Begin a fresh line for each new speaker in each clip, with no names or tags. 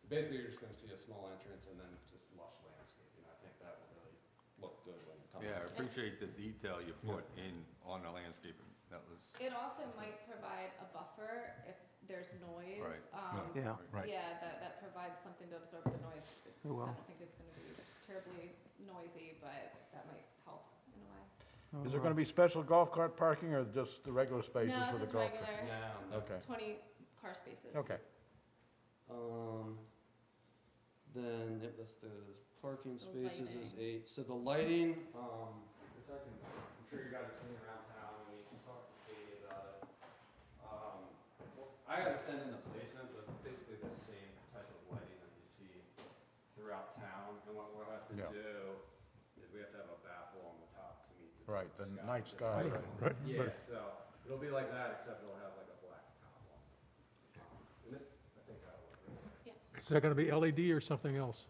So basically, you're just gonna see a small entrance and then just lush landscaping. I think that will really look good when time.
Yeah, I appreciate the detail you put in on the landscaping. That was,
It also might provide a buffer if there's noise.
Right.
um,
Yeah. Yeah.
Right. Oh,
Yeah, that, that provides something to absorb the noise.
It will.
I don't think it's gonna be terribly noisy, but that might help in a way.
Is there gonna be special golf cart parking or just the regular spaces
No,
for the
it's just
golf? cart?
regular,
Now, no.
Okay,
twenty car spaces.
okay.
Um, then, yep, that's the parking
The
spaces is
lighting.
eight, so the lighting, um, which I can, I'm sure you guys have seen around town, and we can talk to Katie about it. Um, wh- I gotta send in the placement, but basically the same type of lighting that you see throughout town, and what we'll have to
Yeah.
do is we have to have a baffle on the top to meet the.
Right, the night sky,
Yeah.
right,
Yeah, so, it'll be like that, except it'll have like a black top on it. Um, And it, I think that'll look really
Is that going to be LED or something else?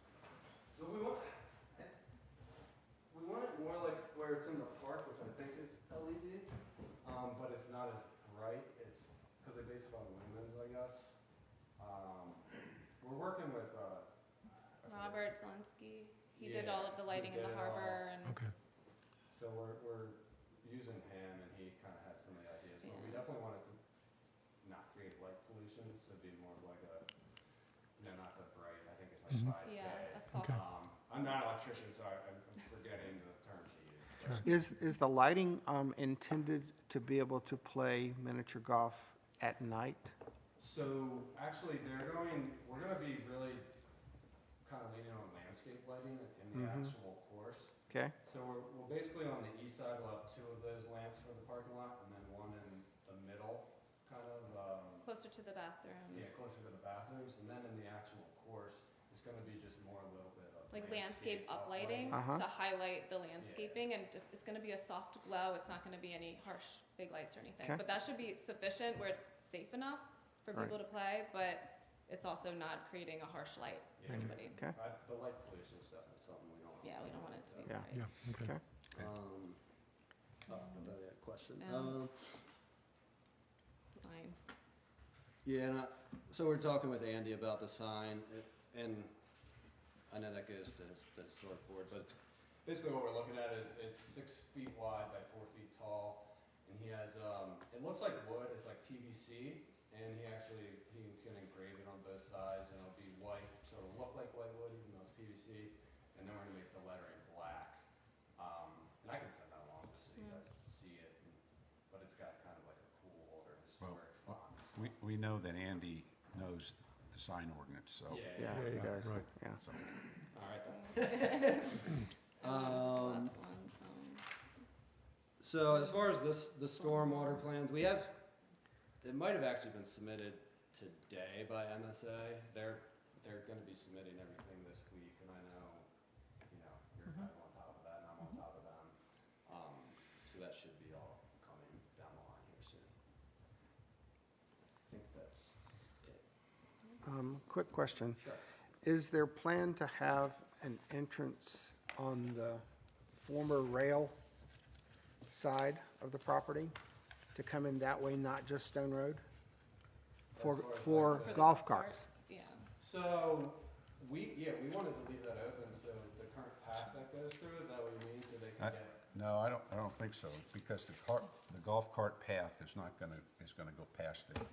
So we want, we want it more like where it's in the park, which I think is LED, um, but it's not as bright. It's because they base it on lumens, I guess. Um, we're working with uh, I forget-
Robert Zelinski, he did
Yeah,
all of the
he
lighting in the
did it all.
harbor and,
Okay.
So we're, we're using him, and he kind of had some of the ideas, but we
Yeah.
definitely wanted to not create light pollution, so it'd be more of like a, you know, not the bright. I think it's like five K.
yeah, a soft.
Okay.
Um, I'm not an electrician, so I, I'm I'm forgetting the term to use. but-
Is, is the lighting um, intended to be able to play miniature golf at night?
So actually, they're going, we're gonna be really kind of leaning on landscape lighting in the
Mhm.
actual course.
Okay?
So we're, we're basically on the east side, we'll have two of those lamps for the parking lot, and then one in the middle, kind of, um,
Closer to the bathrooms.
yeah, closer to the bathrooms, and then in the actual course, it's gonna be just more a little bit of
Like landscape uplighting
Uh-huh.
to highlight the landscaping and just, it's gonna be a soft glow. It's not gonna be any harsh big lights or anything.
Okay.
But that should be sufficient where it's safe enough for
Right.
people to play, but it's also not creating a harsh light for
Yeah.
anybody.
Mm-hmm. Okay.
I- The light pollution is definitely something we don't.
Yeah, we don't want it to be.
Yeah.
bright.
Yeah, okay.
Okay.
Um, oh, I thought I had a question.
Um,
Um,
Sign.
Yeah, and I, so we're talking with Andy about the sign, a- and I know that goes to his- the historic board, but it's, basically what we're looking at is, it's six feet wide by four feet tall, and he has, um, it looks like wood, it's like PVC, and he actually, he can engrave it on both sides, and it'll be white, so it'll look like white wood, even though it's PVC, and then we're gonna make the lettering black. Um, and I can send that along just so you
Yeah.
guys can see it, and- but it's got kind of like a cool older historic font. and stuff.
We, we know that Andy knows the sign ordinance, so.
Yeah.
Yeah,
yeah,
you guys,
right.
yeah.
so-
All right then.
Um,
Um,
this is the last one. Um,
So as far as this, the stormwater plans, we have, it might have actually been submitted today by MSA. They're, they're gonna be submitting everything this week, and I know, you know, you're kind of on top of that, and I'm on top of them. Um, so that should be all coming down the line here soon. I think that's it.
Um, Quick question.
Sure.
Is there plan to have an entrance on the former rail side of the property to come in that way, not just Stone Road? For,
As far as
for
like the-
golf carts?
Yeah.
So, we, yeah, we wanted to leave that open, so the current path that goes through, is that what you mean, so they can
I-
get?
No, I don't, I don't think so, because the cart, the golf cart path is not gonna, is gonna go past there.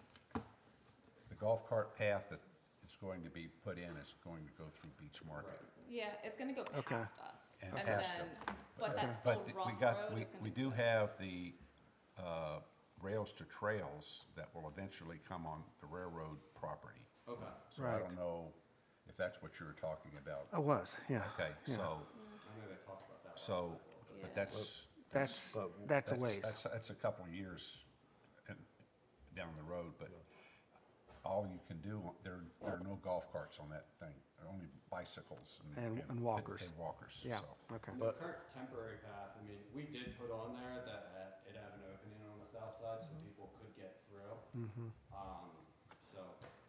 The golf cart path that is going to be put in is going to go through Beach Market.
Yeah, it's gonna go
Okay.
past us.
And past
then,
them.
But that's still
But th- we
rough
got,
road.
we,
is gonna
we
be
do
closed.
have the, uh, rails to trails that will eventually come on the railroad property.
Okay.
So I
Right. Oh.
don't know if that's what you were talking about.
I was, yeah.
Okay,
yeah.
so,
I know they talked about that last
so,
night.
Yeah.
but that's.
That's, that's a
That's,
ways.
that's a couple of years and- down the road, but all you can do, there, there are no golf carts on that thing. There are only bicycles and.
And- and walkers.
And walkers,
Yeah,
so.
okay.
And The current temporary path, I mean, we did put on there that uh, it had an opening on the south side, so
Mm-hmm.
people could get through.
Mm-hmm.
Um, so,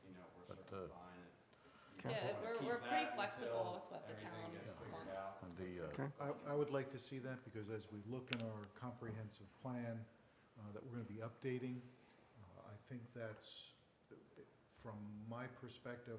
you know, we're
But,
sort of
uh,
fine. if you
Yeah,
wanna
we're-
keep
we're
that
pretty
until
flexible with what the
everything
town
gets figured
wants.
out.
And the, uh,
Okay.
I, I would like to see that, because as we look in our comprehensive plan uh, that we're gonna be updating, uh, I think that's, from my perspective,